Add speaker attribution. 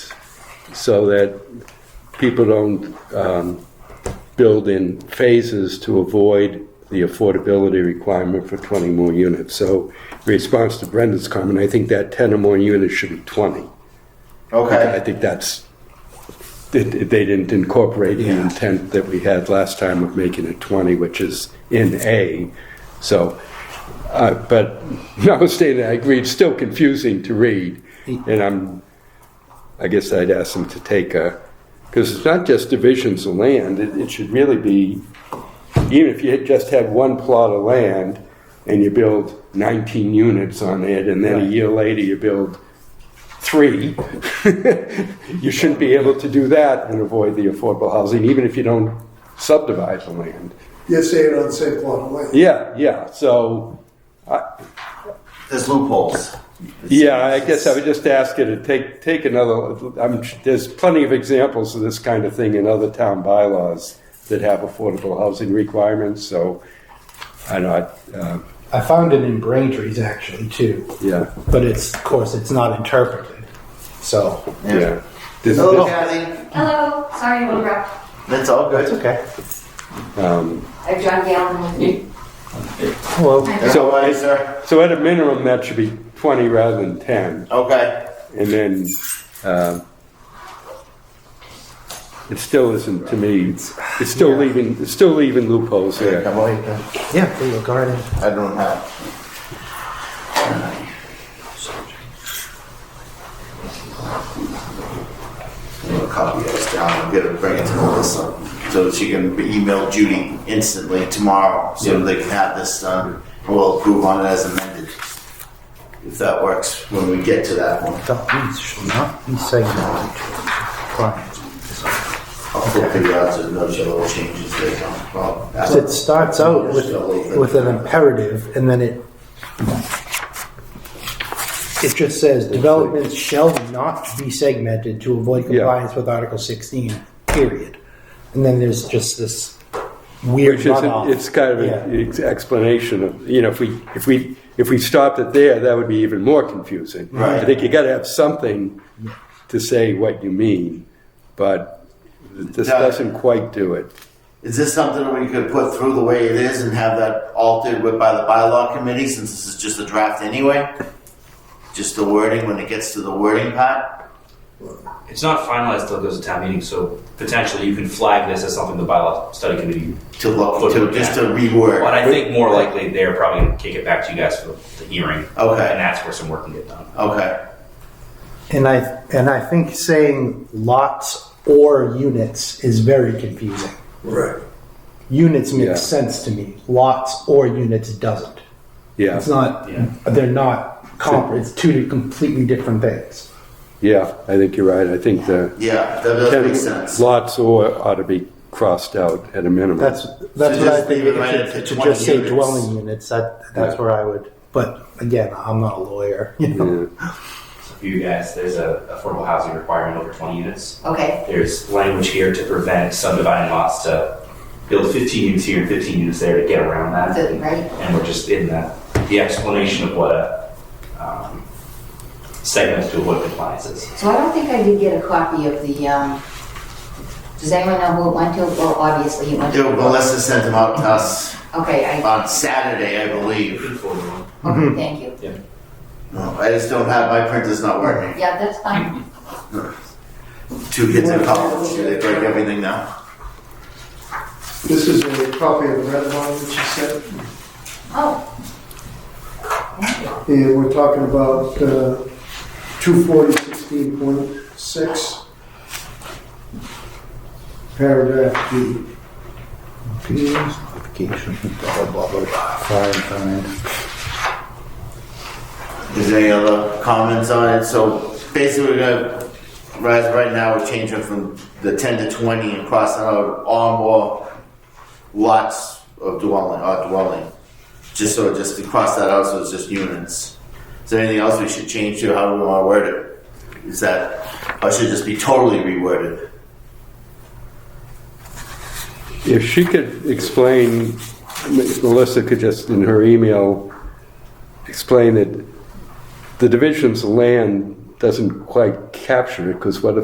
Speaker 1: so that people don't um, build in phases to avoid the affordability requirement for 20 more units. So in response to Brendan's comment, I think that 10 or more units should be 20. I
Speaker 2: Okay.
Speaker 1: think that's, they they didn't incorporate the intent that we had last time of making it 20, which is in A. So, uh, but notwithstanding, I agree, it's still confusing to read. And I'm, I guess I'd ask them to take a, because it's not just divisions of land, it it should really be, even if you had just had one plot of land and you build 19 units on it, and then a year later you build three, you shouldn't be able to do that and avoid the affordable housing, even if you don't subdivide the land.
Speaker 3: You're saying on the same plot of land.
Speaker 1: Yeah, yeah, so,
Speaker 2: There's loopholes.
Speaker 1: yeah, I guess I would just ask you to take, take another, I'm, there's plenty of examples of this kind of thing in other town bylaws that have affordable housing requirements, so I'm not, uh,
Speaker 4: I found it in Braintree's actually too,
Speaker 1: yeah,
Speaker 4: but it's of course it's not interpreted. So
Speaker 1: yeah. This-
Speaker 2: Hello,
Speaker 1: this-
Speaker 2: Kathy.
Speaker 5: Hello, sorry to interrupt.
Speaker 2: That's all good.
Speaker 4: okay.
Speaker 5: I have John Galvin with me.
Speaker 4: Hello.
Speaker 1: So-
Speaker 2: So, sir.
Speaker 1: So at a minimum, that should be 20 rather than 10.
Speaker 2: Okay.
Speaker 1: And then, um, it still isn't to me, it's still leaving, it's still leaving loopholes there.
Speaker 2: Come on.
Speaker 4: Yeah, there you go. Go right in.
Speaker 2: I don't have. I'll copy this down. I'm gonna bring it to Melissa so that she can email Judy instantly tomorrow so they can have this done. And we'll approve on it as amended. If that works when we get to that one.
Speaker 4: The police shall not be segmented to clients.
Speaker 2: I'll flip the odds and those are little changes they don't. Well, that's-
Speaker 4: It starts out with
Speaker 2: Still open.
Speaker 4: with an imperative, and then it it just says developments shall not be segmented to avoid
Speaker 1: Yeah.
Speaker 4: compliance with Article 16. Period. And then there's just this weird
Speaker 1: Which is,
Speaker 4: runoff.
Speaker 1: it's kind of
Speaker 4: Yeah.
Speaker 1: an ex- explanation of, you know, if we, if we, if we stopped it there, that would be even more confusing.
Speaker 2: Right.
Speaker 1: I think you gotta have something to say what you mean, but this
Speaker 2: Yeah.
Speaker 1: doesn't quite do it.
Speaker 2: Is this something we could put through the way it is and have that altered with by the bylaw committee since this is just a draft anyway? Just the wording when it gets to the wording part?
Speaker 6: It's not finalized until it goes to town meeting, so potentially you can flag this as something the bylaw study committee.
Speaker 2: To look, to, just to reword.
Speaker 6: But I think more likely they're probably gonna kick it back to you guys for the hearing.
Speaker 2: Okay.
Speaker 6: And that's where some work can get done.
Speaker 2: Okay,
Speaker 4: And I and I think saying lots or units is very confusing.
Speaker 3: Right.
Speaker 4: Units makes
Speaker 1: Yeah.
Speaker 4: sense to me. Lots or units doesn't.
Speaker 1: Yeah,
Speaker 4: It's not.
Speaker 6: Yeah.
Speaker 4: They're not. Comp- it's two completely different things.
Speaker 1: yeah, I think you're right. I think the
Speaker 2: yeah, that does make sense. So
Speaker 1: lots or ought to be crossed out at a minimum.
Speaker 4: That's that's
Speaker 2: So
Speaker 4: what I
Speaker 2: just
Speaker 4: think.
Speaker 2: leave it
Speaker 4: It
Speaker 2: right
Speaker 4: should,
Speaker 2: at the
Speaker 4: it should
Speaker 2: 20
Speaker 4: just say
Speaker 2: units.
Speaker 4: dwelling units. That that's
Speaker 1: Yeah.
Speaker 4: where I would. But again, I'm not a lawyer. You know?
Speaker 1: Yeah.
Speaker 6: So for you guys, there's a affordable housing requirement over twenty units.
Speaker 5: Okay,
Speaker 6: There's language here to prevent subdividing lots to build fifteen units here and fifteen units there to get around that.
Speaker 5: that's it, right?
Speaker 6: and we're just in the, the explanation of what a um, segment to avoid compliance is.
Speaker 5: So I don't think I did get a copy of the, um, does anyone know who it went to? Well, obviously it went to.
Speaker 2: Melissa sent them out to us
Speaker 5: Okay, I,
Speaker 2: on Saturday, I believe.
Speaker 5: okay, thank you.
Speaker 2: No, I just don't have, my printer's not working.
Speaker 5: Yeah, that's fine.
Speaker 2: Two kids in college, they break everything now.
Speaker 3: This is a copy of the red line that you sent,
Speaker 5: Oh,
Speaker 3: and we're talking about uh, two forty sixteen point six. Paragraph D.
Speaker 4: Notification. Blah blah blah. blah. Fire and find.
Speaker 2: Is there any other comments on it? So basically, we're gonna, right, right now, we're changing from the ten to twenty and crossing out all more lots of dwelling, or dwelling. Just so, just to cross that out, so it's just units. Is there anything else we should change to, how do we wanna word it? Is that, or should it just be totally reworded?
Speaker 1: If she could explain, Melissa could just, in her email, explain that the divisions of land doesn't quite capture it, because what if